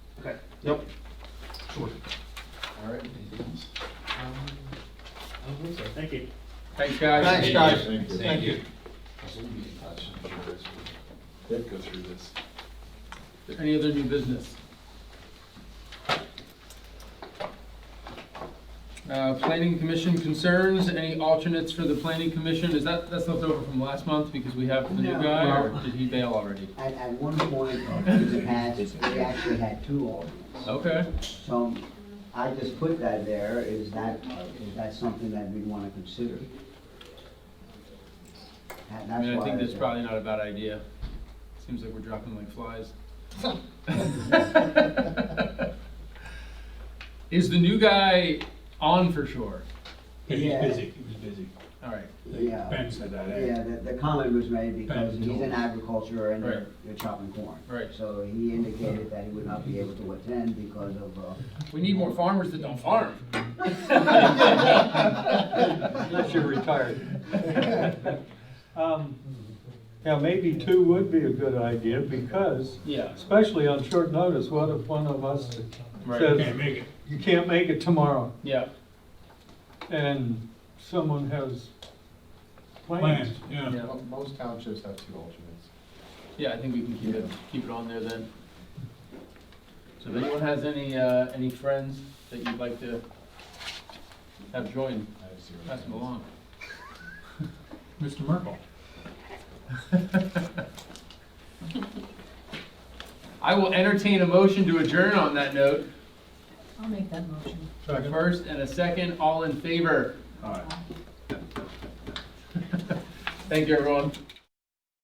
Yep. Sure. All right, anything else? Thank you. Thanks, guys. Thanks, guys. Thank you. Thank you. So we'll be in touch. I'm sure guys will go through this. Any other new business? Uh, planning commission concerns, any alternates for the planning commission? Is that, that's left over from last month because we have the new No. guy or did he bail already? At, at one point in the past, we actually had two alternates. Okay, So I just put that there, is that, is that something that we'd want to consider? That- I That's mean, I why. think that's probably not a bad idea. Seems like we're dropping like flies. Is the new guy on for sure? Yeah, he's busy. He was busy. All right, Yeah, Ben said that, eh? yeah, the, the comment was made because Ben he's in told- agriculture and Right. you're- you're chopping corn. Right. So he indicated that he would not be able to attend because of, uh, we need more farmers that don't farm. Unless you're retired. Um, Now, maybe two would be a good idea, because, Yeah. especially on short notice, what if one of us Right, Can't says, make it. you can't make it tomorrow, yeah. and someone has Plans, plans? yeah. Mo- Most townships have two alternates. Yeah, I think we can keep it, Yeah. keep it on there then. So if anyone has any, uh, any friends that you'd like to have join, I have zero pass them alternates. along. Mr. Merkel. I will entertain a motion to adjourn on that note. I'll make that motion. A first and a second, all in favor. All right. Thank you, everyone.